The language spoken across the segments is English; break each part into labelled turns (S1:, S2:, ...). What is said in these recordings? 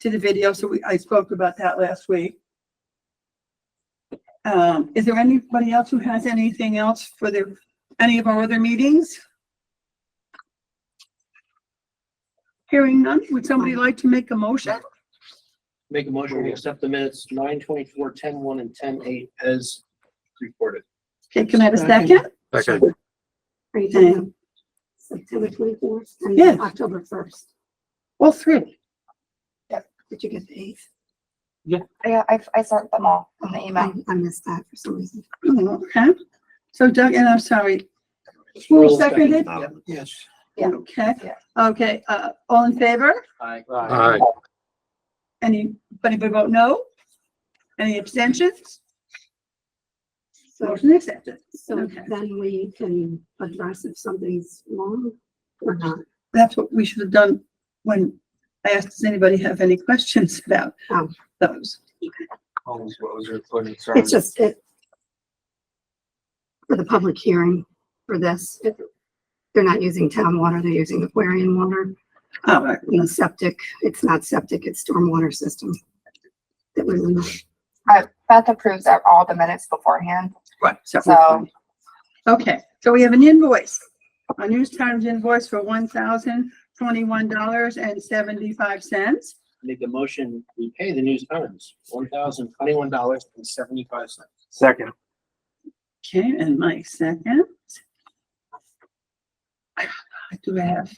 S1: to the video, so we, I spoke about that last week. Um, is there anybody else who has anything else for their, any of our other meetings? Hearing none, would somebody like to make a motion?
S2: Make a motion, we accept the minutes, nine twenty-four, ten one, and ten eight as reported.
S1: Okay, can I have a second?
S3: Second.
S4: Are you
S1: Yeah.
S4: talking September twenty-fourth and
S1: Yeah.
S4: October first?
S1: All three.
S4: Did you get the eighth?
S5: Yeah, I, I sent them all in the
S4: I
S5: email.
S4: I missed that for some reason.
S1: Okay, so Doug, and I'm sorry. Who seconded?
S2: Yep.
S3: Yes.
S5: Yeah.
S1: Okay,
S5: Yeah.
S1: okay, uh, all in favor?
S2: Aye.
S3: Aye.
S1: Any, anybody vote no? Any abstentions?
S4: So,
S1: Motion accepted.
S4: so
S1: Okay.
S4: then we can address if something's wrong or not.
S1: That's what we should have done when I asked, does anybody have any questions about
S4: Oh.
S1: those?
S3: What was your question? Sorry.
S4: It's just it. For the public hearing for this, it- they're not using town water, they're using Aquarian water,
S1: All right,
S4: you know, septic. It's not septic, it's stormwater system. That we,
S5: Beth approves of all the minutes beforehand.
S1: right, so.
S5: So-
S1: Okay, so we have an invoice, a News Times invoice for one thousand twenty-one dollars and seventy-five cents.
S2: Make a motion, we pay the news times, one thousand twenty-one dollars and seventy-five cents.
S3: Second.
S1: Okay, and Mike second. Do I have?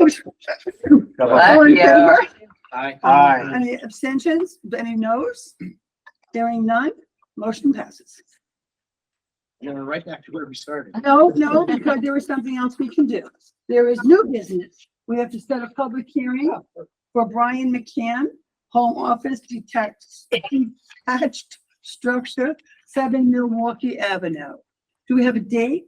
S1: Oh, All in favor?
S2: Aye.
S3: Aye.
S1: Any abstentions? Any noes? Hearing none, motion passes.
S2: And we're right back to where we started.
S1: No, no, because there is something else we can do. There is new business. We have to set a public hearing for Brian McCann, Home Office Detached, Detached Structure, Seven Milwaukee Avenue. Do we have a date?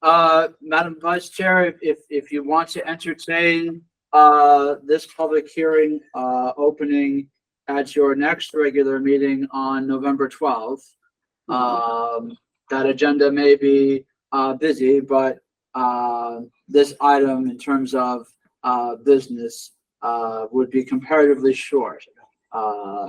S6: Uh, Madam Vice Chair, if- if, if you want to entertain, uh, this public hearing, uh, opening at your next regular meeting on November 12th. Um, that agenda may be, uh, busy, but, uh, this item in terms of, uh, business, uh, would be comparatively short. Uh, uh,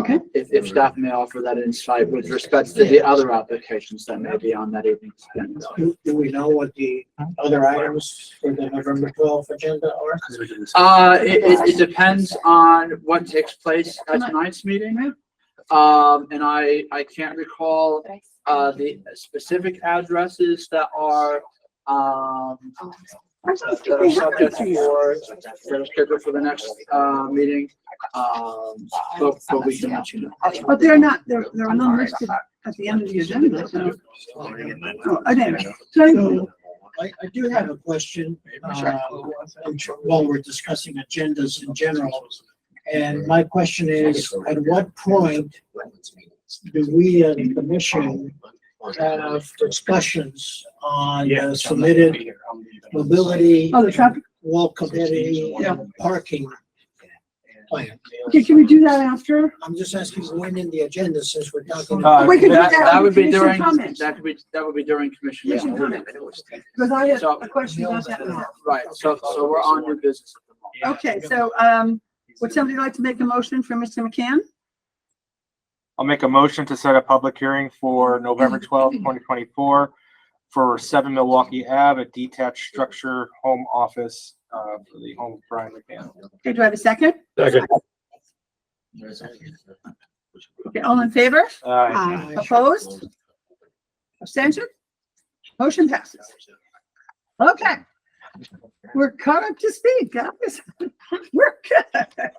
S1: Okay.
S6: If, if staff may offer that insight with respect to the other applications that may be on that evening's agenda.
S2: Do do we know what the other items for the November twelfth agenda are?
S6: Uh, it, it, it depends on what takes place at tonight's meeting. Um, and I, I can't recall, uh, the specific addresses that are, um,
S1: I thought
S6: that are
S1: we had
S6: subject
S1: one.
S6: for, that are scheduled for the next, uh, meeting. Um, but, but we can let you know.
S1: But they're not, they're, they're not listed at the end of the agenda, so. Oh, I didn't, so,
S2: I, I do have a question. um, While we're discussing agendas in general, and my question is, at what point do we as a commission have discussions on the submitted mobility,
S1: oh, the traffic,
S2: wall committee,
S1: Yeah.
S2: and parking plan?
S1: okay, can we do that after?
S2: I'm just asking when in the agenda, since we're talking.
S1: Uh, We could do
S6: That,
S1: that
S6: that
S1: on
S6: would be
S1: commission
S6: during,
S1: comments.
S6: that could be, that would be during commission.
S1: Commission
S6: meeting.
S1: comments. Because I had
S6: So-
S1: a question about that. one.
S6: Right, so, so we're on new business. at the moment.
S1: Okay, so, um, would somebody like to make a motion for Mr. McCann?
S7: I'll make a motion to set a public hearing for November twelfth, twenty twenty-four for seven Milwaukee Ave, a detached structure, home office, uh, for the home of Brian McCann.
S1: Okay, do I have a second?
S3: Second.
S1: Okay, all in favor?
S7: Uh,
S4: uh,
S1: Opposed? Abstention? Motion passes. Okay. We're caught up to speed, guys. We're good.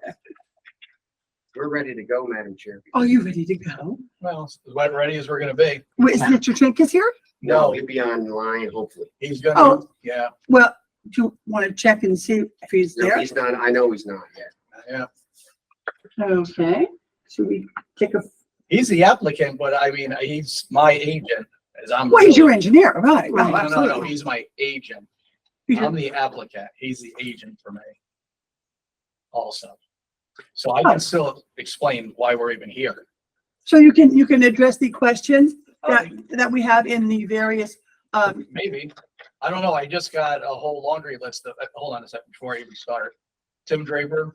S8: We're ready to go, Madam Chair.
S1: Are you ready to go?
S9: Well, as wet ready as we're gonna be.
S1: Wait, is Mr. Trinkus here?
S9: No.
S8: He'll be online, hopefully.
S9: He's gonna,
S1: Oh.
S9: yeah,
S1: Well, do you want to check and see if he's
S8: No,
S1: there?
S8: he's not, I know he's not yet.
S9: yeah.
S1: Okay, should we take a,
S9: He's the applicant, but I mean, he's my agent as I'm.
S1: well, he's your engineer, right?
S9: No,
S1: Right,
S9: no, no, no,
S1: absolutely.
S9: he's my agent.
S1: You
S9: I'm
S1: should-
S9: the applicant. He's the agent for me. Also. So I can still explain why we're even here.
S1: So you can, you can address the questions that, that we have in the various, um,
S9: Maybe. I don't know. I just got a whole laundry list of, uh, hold on a second before I even start.
S6: Tim Draper,